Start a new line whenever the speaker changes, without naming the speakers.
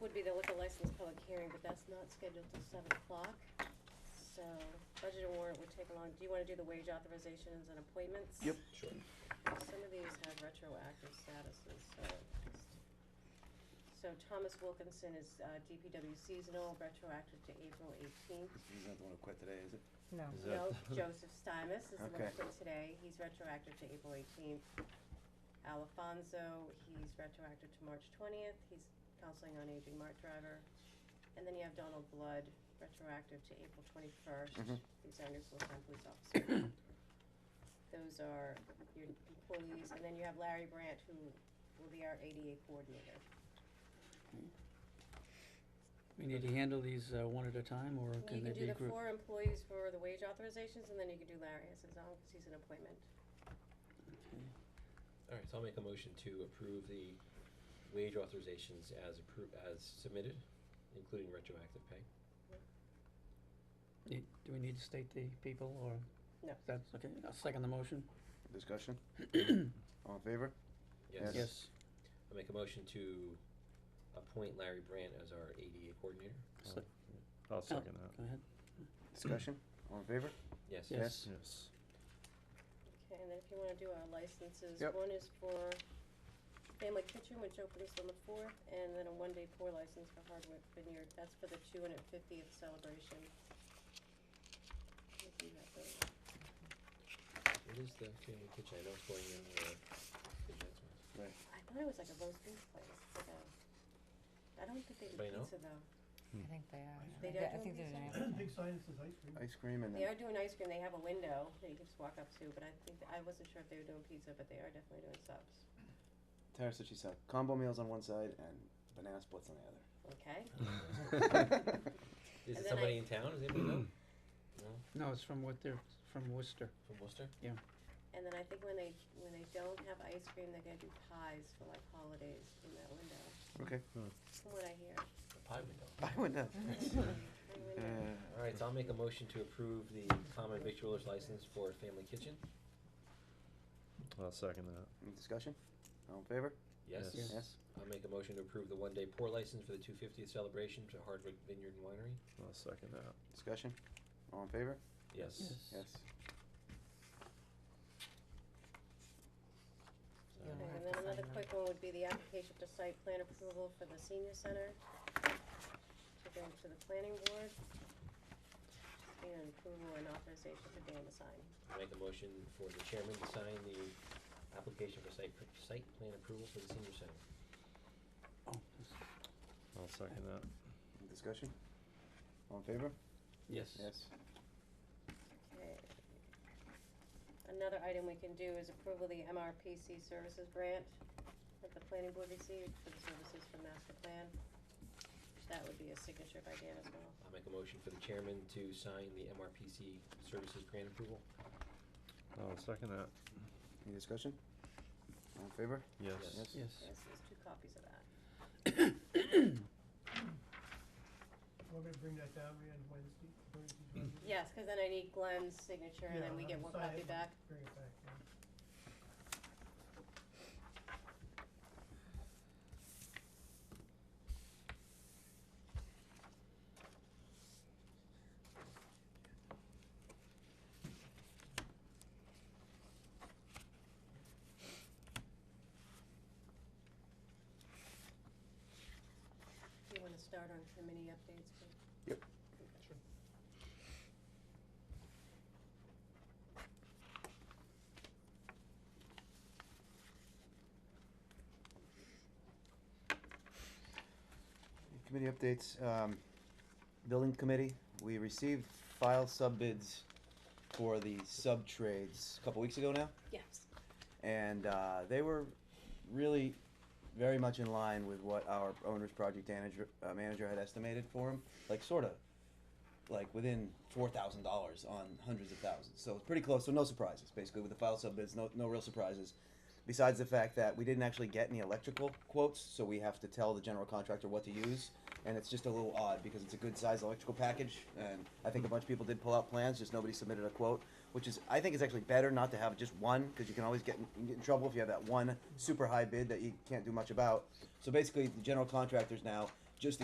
hearing, but that's not scheduled till seven o'clock. So budget and warrant would take along, do you wanna do the wage authorizations and appointments?
Yep.
Sure.
Some of these have retroactive statuses, so just. So Thomas Wilkinson is uh, DPW seasonal, retroactive to April eighteenth.
He's not the one who quit today, is it?
No.
Is that-
No, Joseph Stymus is the one
Okay.
for today, he's retroactive to April eighteenth. Alfonso, he's retroactive to March twentieth, he's counseling on aging mart driver. And then you have Donald Blood, retroactive to April twenty-first,
Mhm.
he's our new full-time police officer. Those are your employees, and then you have Larry Brandt, who will be our ADA coordinator.
We need to handle these uh, one at a time, or
You
can they
can do
be
the
grouped?
four employees for the wage authorizations, and then you can do Larry as his own, cause he's an appointment.
All right, so I'll make a motion to approve the wage authorizations as approved, as submitted, including retroactive pay.
Need- Do we need to state the people, or?
No.
That's, okay, I'll second the motion.
Discussion? All in favor? Yes.
Yes,
I'll make a motion to appoint Larry Brandt as our ADA coordinator.
So-
I'll second that.
go ahead.
Discussion? All in favor?
Yes.
Yes.
Yes.
Okay, and then if you wanna do our licenses,
Yep.
one is for Family Kitchen, which opens on the fourth, and then a one-day pour license for Hardwick Vineyard, that's for the two hundred fiftieth celebration. If you have those.
What is the community kitchen? I know it's going in the, the Jets one.
I thought it was like a roast beef place, but, um, I don't think they do
Anybody know?
pizza though.
Hmm.
I think they are.
They
I
don't
thi-
do these
I think they're
things?
doing everything.
Big sign that says ice cream.
Ice cream and
They
then,
are doing ice cream, they have a window that you can just walk up to, but I think, I wasn't sure if they were doing pizza, but they are definitely doing subs,
Tara said she saw combo meals on one side and banana splits on the
okay?
other.
And
Is
then
it
I-
somebody in town? Does anybody know? No?
No, it's from what they're, from Worcester.
From Worcester?
And then I think when they, when they don't have ice cream, they're gonna do pies for like holidays in that window,
Okay,
from what I hear.
The pie window.
I went down.
I
Uh,
wonder.
All right, so I'll make a motion to approve the common victualers license for Family Kitchen.
I'll second that.
Any discussion? All in favor?
Yes.
Yes.
Yes?
I'll make a motion to approve the one-day pour license for the two fiftieth celebration to Hardwick Vineyard and Winery.
I'll second that.
Discussion? All in favor?
Yes.
Yes.
So-
Yeah.
Okay,
have
and
to
then another
sign that.
quick one would be the application to site plan approval for the senior center to go to the planning board. And approval and authorization for Dan to sign.
I'll Make a motion for the chairman to sign the application for site, pr- site plan approval for the senior center.
Oh, yes.
I'll second that.
Any discussion? All in favor?
Yes.
Yes.
Okay. Another item we can do is approval of the MRPC services grant that the planning board received for the services for master plan. That would be a signature by Dan as well.
I'll make a motion for the chairman to sign the MRPC services grant approval.
I'll second that.
Any discussion? All in favor?
Yes.
Yes.
Yes.
Yes, there's two copies of that.
We're gonna bring that down on Wednesday, Thursday, Wednesday.
Yes, cause then I need Glenn's signature and then
Yeah,
we get
I'll
one
sign
copy
it,
back.
Bring it back, yeah.
Do you wanna start on committee updates? please?
Yep.
Sure.
Committee updates, um, building committee, we received file sub bids for the sub trades a couple weeks ago now.
Yes.
And, uh, they were really very much in line with what our owner's project manager, uh, manager had estimated for him, like sorta, like within four thousand dollars on hundreds of thousands, so it's pretty close, so no surprises, basically with the file sub bids, no, no real surprises. Besides the fact that we didn't actually get any electrical quotes, so we have to tell the general contractor what to use, and it's just a little odd because it's a good sized electrical package, and I think a bunch of people did pull out plans, just nobody submitted a quote, which is, I think it's actually better not to have just one, because you can always get in, you can get in trouble if you have that one super high bid that you can't do much about. So basically, the general contractors now